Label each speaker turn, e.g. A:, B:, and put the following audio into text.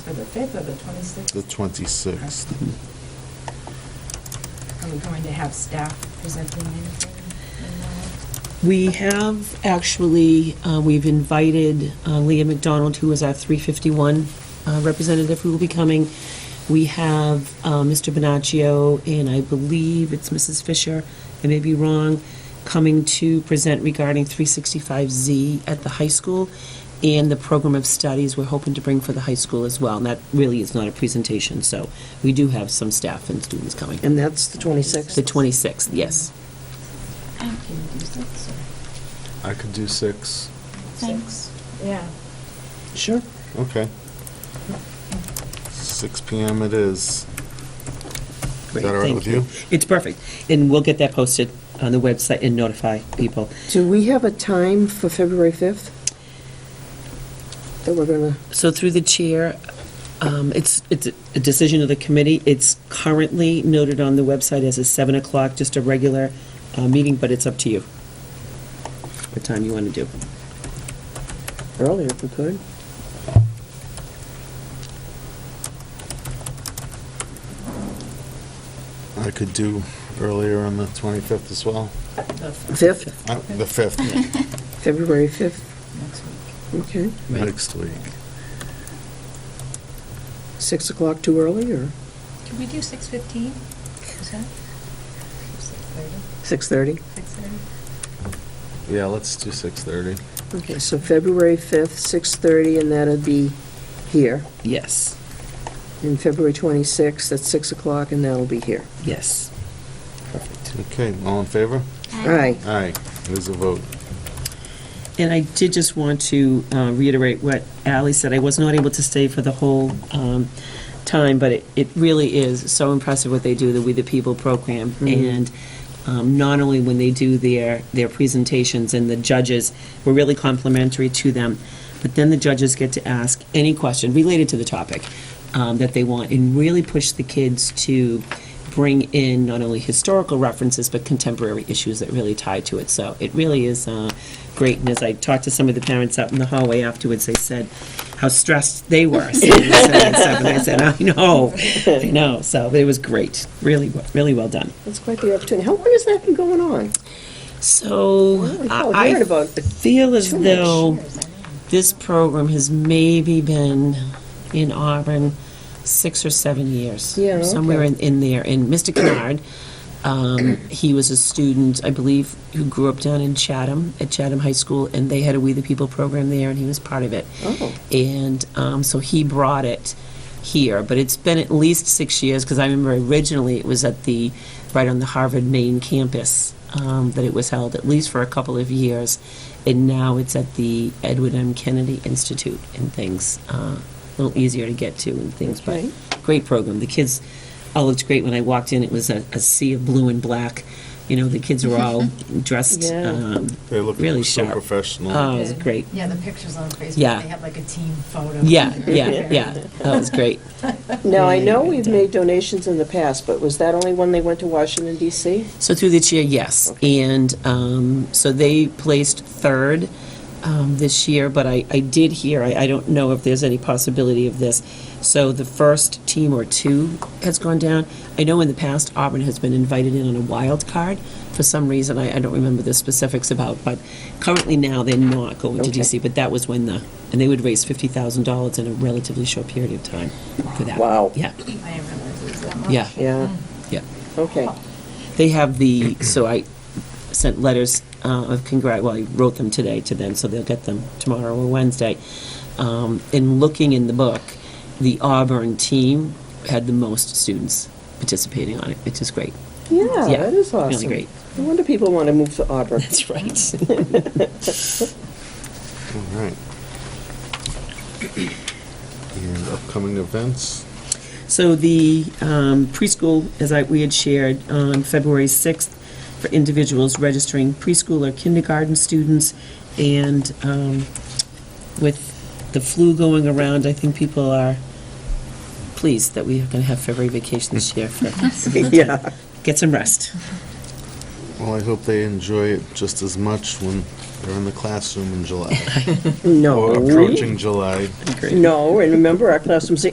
A: for the 5th or the 26th?
B: the 26th.
A: Are we going to have staff presenting anything?
C: We have actually, uh, we've invited uh, Leah McDonald, who is our 351 uh, representative, who will be coming. We have uh, Mr. Bonaccio, and I believe it's Mrs. Fisher, I may be wrong, coming to present regarding 365Z at the high school and the program of studies we're hoping to bring for the high school as well. And that really is not a presentation, so we do have some staff and students coming.
D: And that's the 26th?
C: The 26th, yes.
A: I
E: Um,
A: can do six or
B: I could do six.
A: six. Yeah.
D: Sure.
B: Okay. Six PM it is. Is
C: Great,
B: that all right
C: thank
B: with you?
C: It's perfect, and we'll get that posted on the website and notify people.
D: Do we have a time for February 5th? That we're going to,
C: So through the chair, um, it's, it's a decision of the committee, it's currently noted on the website as a 7 o'clock, just a regular uh, meeting, but it's up to you, what time you want to do.
D: earlier if we could?
B: I could do earlier on the 25th as well,
D: 5th,
B: Uh, the 5th,
D: February 5th,
A: Next week.
D: okay.
C: Right.
B: next week.
D: 6 o'clock too early, or
E: Can we do six fifteen? Is that
A: 6:30?
D: 6:30?
E: six thirty?
B: Yeah, let's do 6:30.
D: Okay, so February 5th, 6:30, and that'll be here.
C: Yes,
D: And February 26th at 6 o'clock, and that'll be here.
C: yes, perfect.
B: Okay, all in favor?
D: Aye.
B: Aye, it is a vote.
C: And I did just want to uh, reiterate what Ally said. I was not able to stay for the whole um, time, but it- it really is so impressive what they do, the We the People program. And um, not only when they do their, their presentations and the judges, we're really complimentary to them, but then the judges get to ask any question related to the topic um, that they want and really push the kids to bring in not only historical references, but contemporary issues that really tie to it. So it really is uh, great. And as I talked to some of the parents out in the hallway afterwards, they said how stressed they were. seeing this and stuff. And I said, I know, I know. So it was great. Really, well- really well done.
D: That's quite the opportunity. How long has that been going on?
C: So
D: Well, we all
C: I
D: heard
C: I
D: about
C: feel as
D: too much.
C: though this program has maybe been in Auburn six or seven years.
D: Yeah,
C: Somewhere
D: okay.
C: in, in there. And Mr. Kennard, um, he was a student, I believe, who grew up down in Chatham, at Chatham High School, and they had a We the People program there, and he was part of it.
D: Oh.
C: And um, so he brought it here, but it's been at least six years, because I remember originally it was at the, right on the Harvard main campus um, that it was held, at least for a couple of years. And now it's at the Edward M. Kennedy Institute and things, uh, a little easier to get to and things, but
D: Okay.
C: great program. The kids all looked great when I walked in. It was a, a sea of blue and black. You know, the kids were all dressed
D: Yeah.
C: um,
B: They look
C: really
B: so
C: sharp.
B: professional.
C: Oh, it was
A: Good.
C: great.
A: Yeah, the pictures on Facebook.
C: Yeah.
A: They had like a team photo.
C: Yeah, yeah, yeah. That was great.
D: Now, I know
C: Really
D: we've
C: done.
D: made donations in the past, but was that only when they went to Washington DC?
C: So through the chair, yes.
D: Okay.
C: And um, so they placed third um, this year, but I, I did hear, I, I don't know if there's any possibility of this. So the first team or two has gone down. I know in the past Auburn has been invited in on a wild card for some reason. I, I don't remember the specifics about, but currently now they're not going to
D: Okay.
C: DC. But that was when the, and they would raise $50,000 in a relatively short period of time for that.
D: Wow.
C: Yeah,
A: I didn't realize it was that much.
C: yeah,
D: Yeah,
C: yeah.
D: okay.
C: They have the, so I sent letters uh, of congrat, well, I wrote them today to them, so they'll get them tomorrow or Wednesday. Um, In looking in the book, the Auburn team had the most students participating on it, which is great.
D: Yeah, that is awesome.
C: Really great.
D: No wonder people want to move to Auburn.
C: That's right.
B: All right. And upcoming events?
C: So the um, preschool, as I, we had shared on February 6th, for individuals registering preschool or kindergarten students, and um, with the flu going around, I think people are pleased that we are going to have February vacation this year for,
D: Yeah.
C: get some rest.
B: Well, I hope they enjoy it just as much when they're in the classroom in July,
D: No.
B: or approaching July.
D: No, and remember, our classroom's